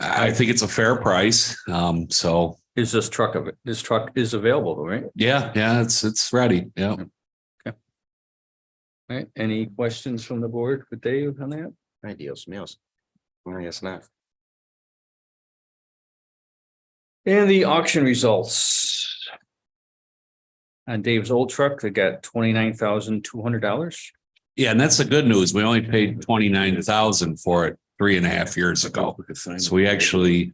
I think it's a fair price. Um, so Is this truck of, this truck is available, though, right? yeah, yeah, it's, it's ready. Yeah. Right, any questions from the board with Dave on that? Ideal smells. I guess not. And the auction results. On Dave's old truck, they got twenty-nine thousand two hundred dollars. Yeah. And that's the good news. We only paid twenty-nine thousand for it three and a half years ago. So we actually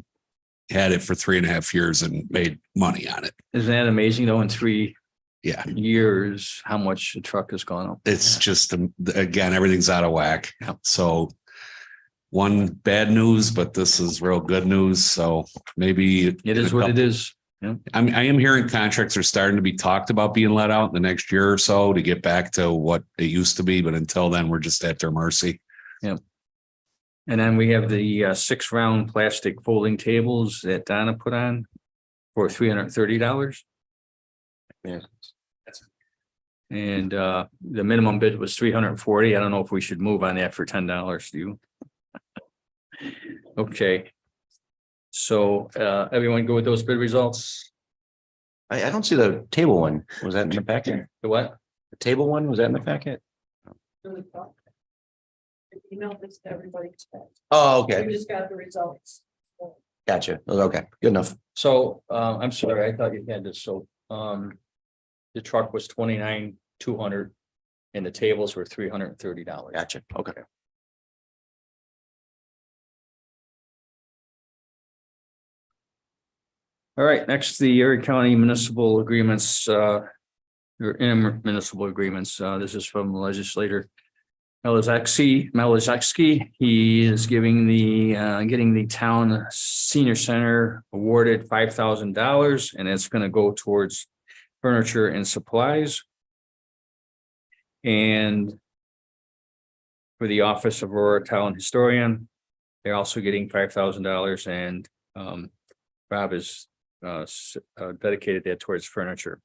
had it for three and a half years and made money on it. Isn't that amazing, though, in three Yeah. years, how much the truck has gone up? It's just, um, again, everything's out of whack. So one bad news, but this is real good news. So maybe. It is what it is. I'm, I am hearing contracts are starting to be talked about being let out in the next year or so to get back to what it used to be, but until then, we're just at their mercy. And then we have the uh, six round plastic folding tables that Donna put on for three hundred and thirty dollars. Yeah. And uh, the minimum bid was three hundred and forty. I don't know if we should move on that for ten dollars, do you? Okay. So uh, everyone go with those bid results? I, I don't see the table one. Was that in the packet? The what? The table one, was that in the packet? really thought. I Emailed this to everybody. today. Oh, We just got the results. Gotcha. Okay, good enough. So uh, I'm sorry, I thought you had this, so um. The truck was twenty nine, two hundred. And the tables were three hundred and thirty dollars. Gotcha. Okay. All right, next, the Erie County Municipal Agreements, uh, your intermunicipal agreements. Uh, this is from legislator Melizaki, Melizaki. He is giving the, uh, getting the town senior center awarded five thousand dollars, and it's gonna go towards furniture and supplies. And for the Office of Aurora Town Historian, they're also getting five thousand dollars, and, um, Rob is uh, s- uh, dedicated that towards furniture.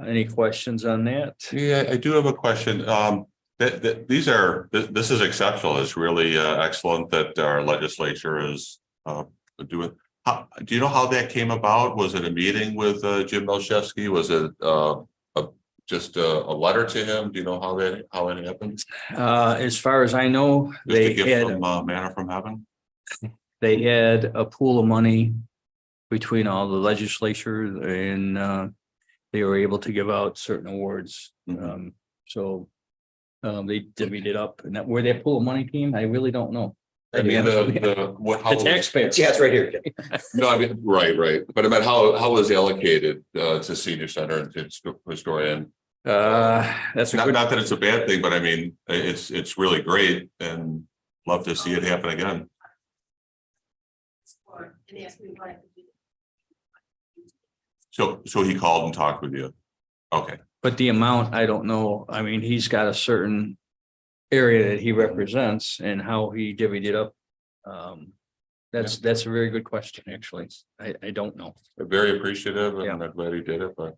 Any questions on that? Yeah, I do have a question. Um, that, that, these are, th- this is exceptional. It's really uh, excellent that our legislature is, uh, doing. How, do you know how that came about? Was it a meeting with, uh, Jim Melchewski? Was it, uh, a, just a, a letter to him? Do you know how that, how it happened? Just Uh, as far as I know, a they gift had, from, uh, manna from heaven? they had a pool of money between all the legislature and, uh, they were able to give out certain awards. Mhm. Um, so, um, they divvied it up and that, where that pool of money came, I really don't know. I mean, the, Mm-hmm. uh, the, what, how? The taxpayers. Yeah, it's right here. No, I mean, right, right. But I meant how, how was allocated, uh, to senior center and to historian? Uh, that's a Not, good, not that it's a bad thing, but I mean, i- it's, it's really great and love to see it happen again. And they asked me what I could do. So, so he called and talked with you. Okay, But the amount, I don't know. I mean, he's got a certain area that he represents and how he divvied it up. Um, that's, that's a very good question, actually. I, I don't know, very appreciative and Yeah. I'm glad he did it, but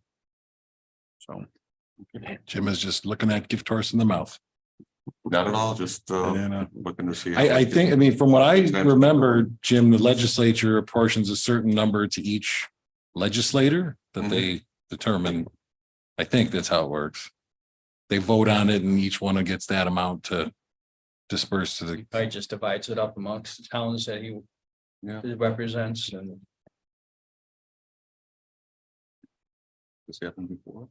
so. Jim is just looking at gift horse in the mouth. not at all, just uh, And, uh, looking to see. if I, I can- think, I mean, from what I Exactly. remember, Jim, the legislature apportions a certain number to each legislator that they determine. I think that's how it works. They vote on it and each one gets that amount to disperse to the, Probably just divides it up amongst the towns that he Yeah. that represents and. This happened before.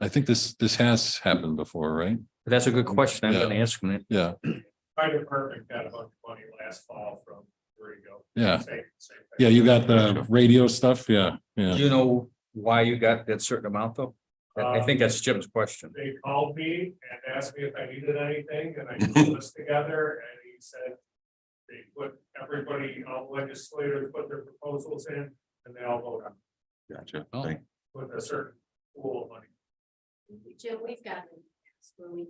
I think this, this has happened before, right? That's a good question. I'm gonna ask him it. Yeah, My department got a bunch of money last fall from where you go. yeah. Same- same thing. Yeah, you got the radio stuff. Yeah, Do yeah. you know why you got that certain amount though? I I think that's Jim's question. They called me and asked me if I needed anything, and I put this together, and he said. They put, everybody, all legislators put their proposals in, and they all voted on Gotcha. Oh. Thank- with a certain pool of money. Jim, we've gotten, it's where we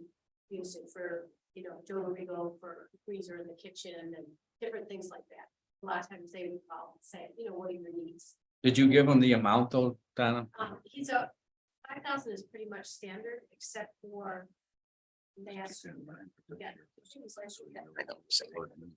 use it for, you know, jewelry go for freezer in the kitchen and different things like that. A lot of times they would call and say, you know, what are your needs? Did you give him the amount though, Donna? Um, he's a, five thousand is pretty much standard, except for. They asked. Yeah.